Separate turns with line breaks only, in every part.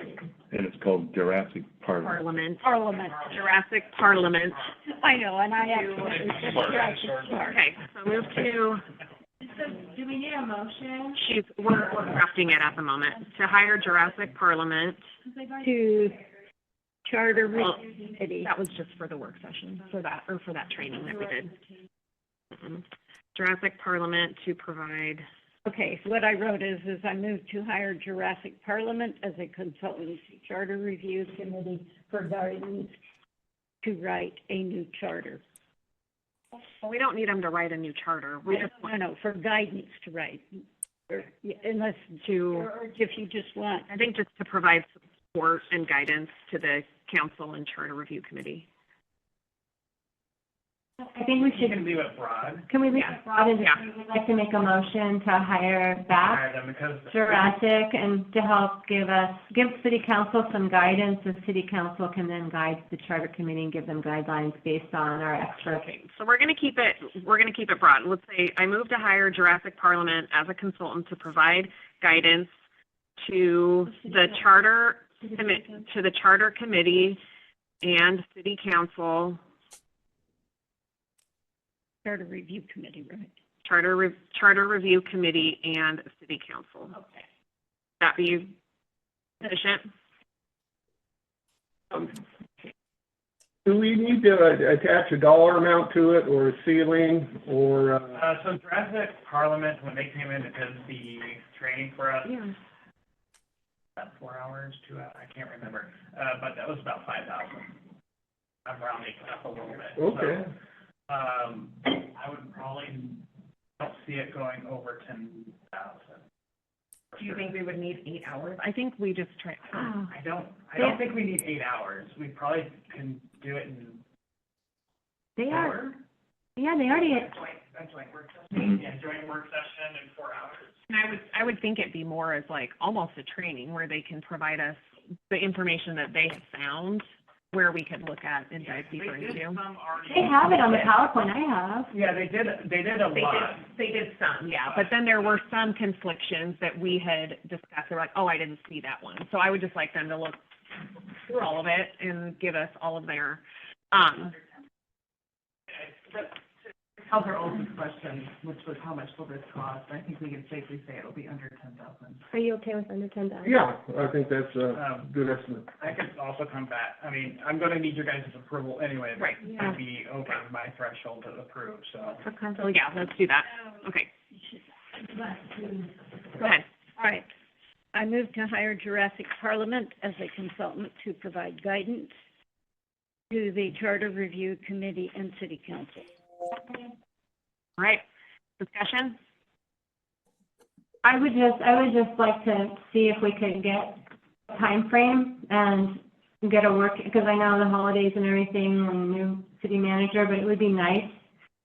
and it's called Jurassic Park.
Parliament.
Parliament.
Jurassic Parliament.
I know, and I actually.
Okay, so move to,
do we need a motion?
she's, we're we're crafting it at the moment, to hire Jurassic Parliament.
To charter
Well,
committee.
That was just for the work session, for that, or for that training that we did. Mhm. Jurassic Parliament to provide,
Okay, so what I wrote is, is I moved to hire Jurassic Parliament as a consultant to charter review committee for guidance to write a new charter.
well, we don't need them to write a new charter, we just
No,
want
no, for guidance to write, Yeah, unless,
to,
or if you just want,
I think just to provide support and guidance to the council and charter review committee.
I think we should. Can leave it broad. Can we leave
Yeah.
it broad, and if
Yeah.
we would like to make a motion to hire back Jurassic and to help give us, give city council some guidance, the city council can then guide the charter committee and give them guidelines based on our experts.
Okay, so we're gonna keep it, we're gonna keep it broad. Let's say, I move to hire Jurassic Parliament as a consultant to provide guidance to the charter, commi- to the charter committee and city council,
charter review committee, right?
charter, re- charter review committee and city council.
Okay.
That be sufficient?
Do we need to uh, attach a dollar amount to it, or a ceiling, or, uh,
Uh, so Jurassic Parliament, when they came in, it did the training for us,
Yeah.
about four hours, two hours, I can't remember. Uh, but that was about five thousand. I'm rounding up a little bit. so,
okay.
Um, I would probably, I don't see it going over ten thousand.
we would need eight hours? I think we just try,
I don't, I don't think we need eight hours. We probably can do it in
They are,
four.
yeah, they already,
That's like, that's like work
Mm-hmm.
session, yeah, joint work session in four hours.
And I would, I would think it'd be more as like almost a training where they can provide us the information that they have found where we could look at and dive deeper
They did
into.
some already.
they have it on the PowerPoint I have.
Yeah, they did, they did a
They
lot.
did, they did some, yeah, but then there were some conflictions that we had discussed. They were like, oh, I didn't see that one. So I would just like them to look through all of it and give us all of their, um,
How's our open question, which was how much will this cost? I think we can safely say it'll be under ten thousand.
Are you okay with under ten dollars?
Yeah, I think that's a
Um,
good estimate.
I could also come back, I mean, I'm gonna need your guys' approval anyway.
right.
It would be over my threshold to approve, so.
Okay.
So yeah, let's do that. Okay, go ahead.
All right. I move to hire Jurassic Parliament as a consultant to provide guidance to the Charter Review Committee and City Council.
All right, discussion?
I would just, I would just like to see if we could get a time frame and get a work, because I know the holidays and everything, and new city manager, but it would be nice if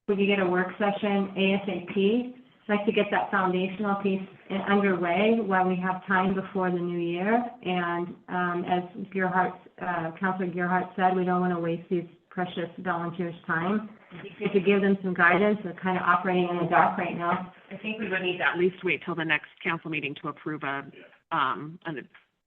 we could get a work session ASAP. I'd Like to get that foundational piece in- underway while we have time before the new year. And, um, as Gerhart, uh, Counselor Gerhart said, we don't want to waste these precious volunteers' time. If we give them some guidance, they're kind of operating in the dark right now,
I think we would need to at least wait till the next council meeting to approve a, um, a,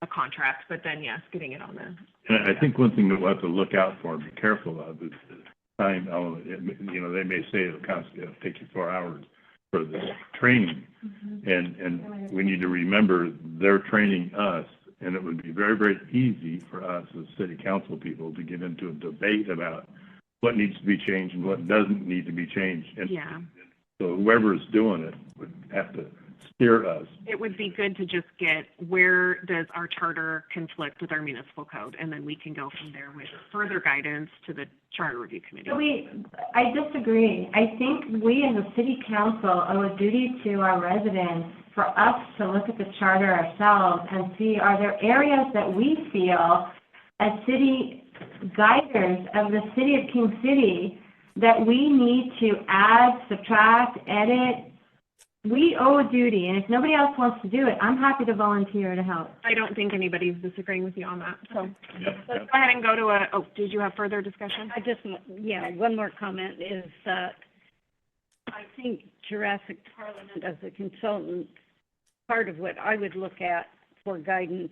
a contract, but then, yes, getting it on the,
And I think one thing that we'll have to look out for and be careful of is the time element. It may- You know, they may say it'll cost, it'll take you four hours for this training. And, and we need to remember they're training us and it would be very, very easy for us as city council people to get into a debate about what needs to be changed and what doesn't need to be changed. And
yeah.
so whoever's doing it would have to steer us
It would be good to just get, where does our charter conflict with our municipal code? And then we can go from there with further guidance to the charter review committee.
But we, I disagree. I think we as a city council owe a duty to our residents for us to look at the charter ourselves and see, are there areas that we feel as city guiders of the city of King City that we need to add, subtract, edit? We owe a duty, and if nobody else wants to do it, I'm happy to volunteer to help.
I don't think anybody's disagreeing with you on that, so
Yep,
let's
yep.
go ahead and go to a, oh, did you have further discussion?
I just, want- yeah, one more comment is that I think Jurassic Parliament as a consultant, part of what I would look at for guidance